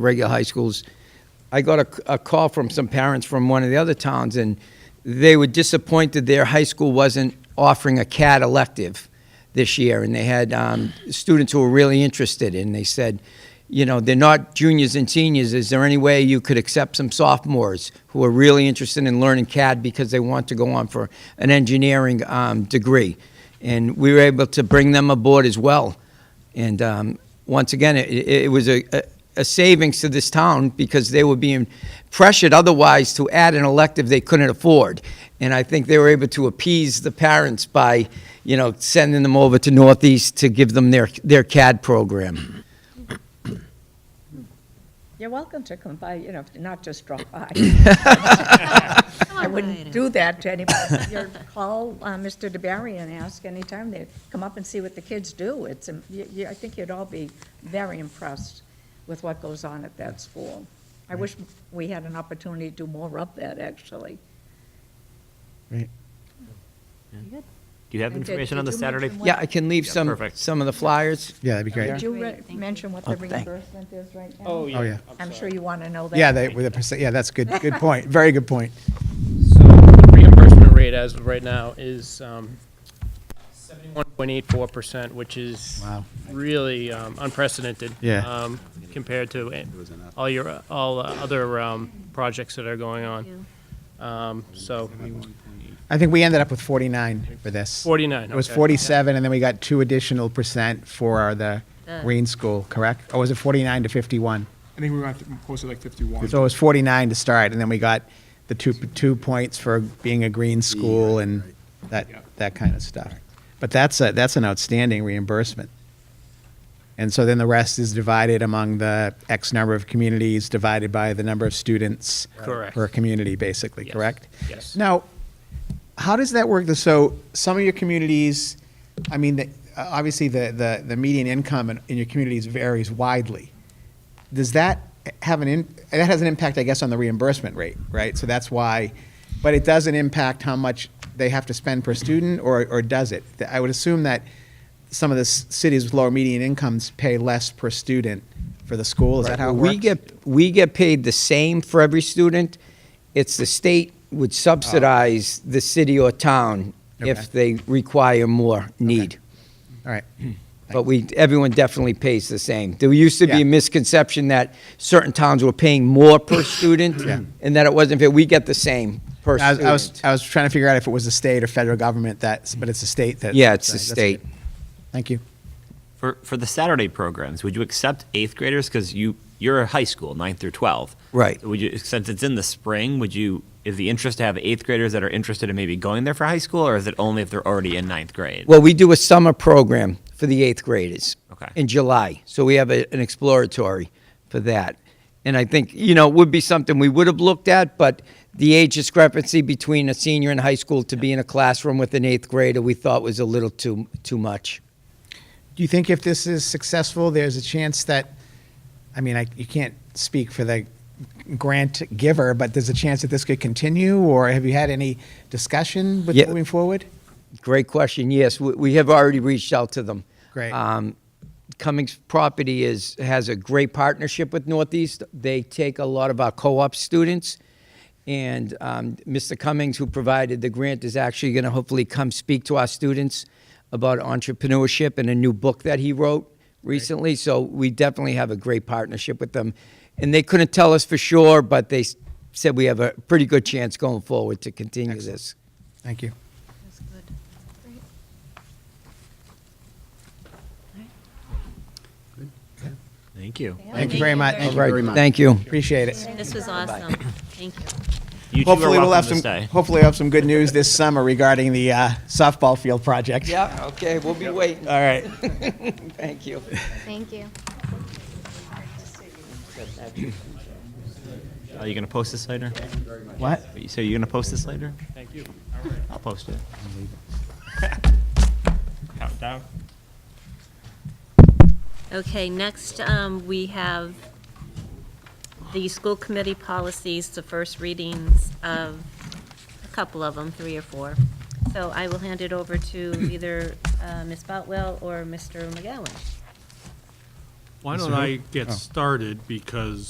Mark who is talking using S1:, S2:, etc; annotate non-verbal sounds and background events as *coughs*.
S1: regular high schools. I got a, a call from some parents from one of the other towns, and they were disappointed their high school wasn't offering a CAD elective this year, and they had um, students who were really interested, and they said, you know, they're not juniors and seniors. Is there any way you could accept some sophomores who are really interested in learning CAD because they want to go on for an engineering um, degree? And we were able to bring them aboard as well. And um, once again, it, it it was a, a- a savings to this town because they were being pressured otherwise to add an elective they couldn't afford. And I think they were able to appease the parents by, you know, sending them over to Northeast to give them their, their CAD program.
S2: You're welcome to come by, you know, not just drop
S3: *laughs*
S2: by. I
S4: on
S2: wouldn't do that to anybody. You're- Call uh, Mr. DeBerry and ask anytime they come up and see what the kids do. It's, um, you- you- I think you'd all be very impressed with what goes on at that school. I wish we had an opportunity to do more of that, actually.
S5: Do you have
S2: And did-
S5: information on
S2: did
S5: the
S2: you
S5: Saturday?
S2: mention what-
S1: Yeah, I can leave
S5: Yeah,
S1: some,
S5: perfect.
S1: some of the flyers.
S3: Yeah, that'd be
S2: Did
S3: great. Oh,
S2: you re-
S4: Thank you.
S2: mention what the
S6: thank-
S2: reimbursement is right now?
S7: Oh,
S3: yeah,
S7: yeah.
S3: I'm
S2: I'm sure you want to know that.
S3: Yeah, they, with a percent, yeah, that's good, good point, very good point.
S7: So the reimbursement rate as of right now is um, seventy-one point eight four percent, which is
S3: Wow.
S7: really um, unprecedented.
S3: Yeah.
S7: um, Compared to eh, all your, uh, all uh, other um, projects that are going on. Um, So
S3: I think we ended up with 49 for this.
S7: forty-nine.
S3: It was
S7: okay.
S3: 47, and then we got two additional percent for the
S4: Uh.
S3: Green School, correct? Or was it 49 to 51?
S8: I think we were at, closer to like 51.
S3: So it was 49 to start, and then we got the two, two points for being a green school and that, that kind of stuff. But that's a, that's an outstanding reimbursement. And so then the rest is divided among the X number of communities, divided by the number of students.
S7: Correct.
S3: Per community, basically,
S7: Yes.
S3: correct?
S7: Yes.
S3: Now, how does that work? So some of your communities, I mean, the- uh, obviously, the, the, the median income in, in your communities varies widely. Does that have an, in- that has an impact, I guess, on the reimbursement rate, right? So that's why, but it doesn't impact how much they have to spend per student, or, or does it? I would assume that some of the s- cities with lower median incomes pay less per student for the school, is that how it works?
S1: We get, we get paid the same for every student. It's the state would subsidize the city or town
S3: Ah. Okay.
S1: if they require more need.
S3: All right,
S1: But we, everyone definitely pays the same. There used to be
S3: Yeah.
S1: a misconception that certain towns were paying more
S3: *coughs*
S1: per student
S3: Yeah.
S1: and that it wasn't fair. We get the same per
S3: I was, I was,
S1: student.
S3: I was trying to figure out if it was the state or federal government that's, but it's the state that.
S1: Yeah, it's the
S3: that's good.
S1: state.
S3: Thank you.
S5: For, for the Saturday programs, would you accept eighth graders? Because you, you're a high school, ninth through 12.
S1: Right.
S5: Would you, since it's in the spring, would you, is the interest to have eighth graders that are interested in maybe going there for high school, or is it only if they're already in ninth grade?
S1: Well, we do a summer program for the eighth graders
S5: Okay.
S1: in July. So we have a, an exploratory for that. And I think, you know, it would be something we would have looked at, but the age discrepancy between a senior in high school to be in a classroom with an eighth grader, we thought was a little too, too much.
S3: Do you think if this is successful, there's a chance that, I mean, I, you can't speak for the grant giver, but there's a chance that this could continue, or have you had any discussion with
S1: Yeah.
S3: moving forward?
S1: Great question. Yes, we, we have already reached out to them.
S3: Great.
S1: Um, Cummings Property is has a great partnership with Northeast. They take a lot of our co-op students, and um, Mr. Cummings, who provided the grant, is actually going to hopefully come speak to our students about entrepreneurship and a new book that he wrote recently. So we definitely have a great partnership with them, and they couldn't tell us for sure, but they s- said we have a pretty good chance going forward to continue this.
S3: Thank you.
S4: That's good.
S5: Thank you.
S3: Thank you very much. Thank
S1: All
S3: you.
S1: right,
S8: very much.
S1: thank you.
S3: Appreciate it.
S4: This was awesome. Thank you.
S5: You two are
S3: Hopefully, we'll have
S5: welcome to
S3: some,
S5: stay.
S3: hopefully we'll have some good news this summer regarding the uh, softball field project.
S1: Yeah, okay, we'll be waiting. *laughs*
S3: All right.
S1: Thank you.
S9: Thank you.
S5: Are you going to post this later?
S3: What?
S5: So you're going to post this later?
S7: Thank you.
S5: I'll post it. Countdown.
S4: Okay, next, um, we have the school committee policies, the first readings of a couple of them, three or four. So I will hand it over to either uh, Ms. Boutwell or Mr. McGowan.
S10: Why don't I get started, because